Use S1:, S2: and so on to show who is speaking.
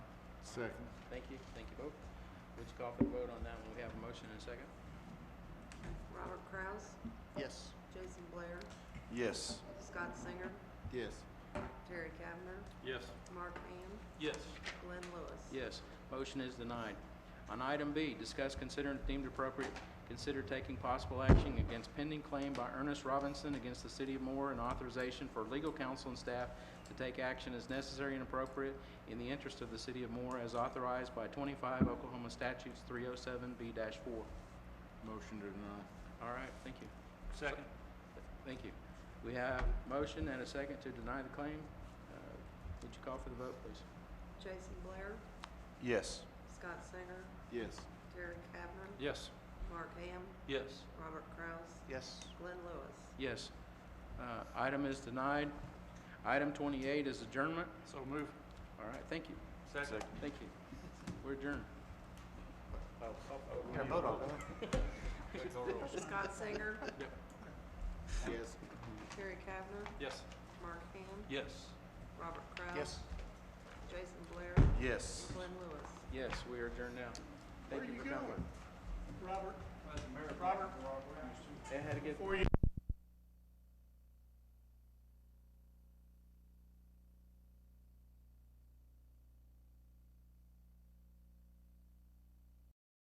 S1: Second.
S2: Thank you, thank you both. Would you call for the vote on that one? We have a motion and a second.
S3: Robert Kraus,
S2: Yes.
S3: Jason Blair,
S1: Yes.
S3: Scott Singer,
S1: Yes.
S3: Terry Kavner,
S4: Yes.
S3: Mark Ham,
S4: Yes.
S3: Glenn Lewis.
S2: Yes, motion is denied. On item B, discuss, consider, and if deemed appropriate, consider taking possible action against pending claim by Ernest Robinson against the city of Moore and authorization for legal counsel and staff to take action as necessary and appropriate in the interest of the city of Moore as authorized by 25 Oklahoma statutes 307B-4.
S1: Motion to deny.
S2: All right, thank you.
S4: Second.
S2: Thank you. We have motion and a second to deny the claim. Uh, Would you call for the vote, please?
S3: Jason Blair,
S1: Yes.
S3: Scott Singer,
S1: Yes.
S3: Terry Kavner,
S4: Yes.
S3: Mark Ham,
S4: Yes.
S3: Robert Kraus,
S1: Yes.
S3: Glenn Lewis.
S2: Yes. Uh, Item is denied. Item 28 is adjournment.
S4: So move.
S2: All right, thank you,
S4: Second.
S2: thank you. We're adjourned.
S3: Scott Singer,
S1: Yes.
S3: Terry Kavner,
S4: Yes.
S3: Mark Ham,
S4: Yes.
S3: Robert Kraus. Jason Blair,
S1: Yes.
S3: Glenn Lewis.
S2: Yes, we are adjourned now.
S1: Where
S2: Thank
S1: are
S2: you
S1: you
S2: for coming.
S1: going?
S4: Robert. Robert.
S2: They had to get...
S4: Before you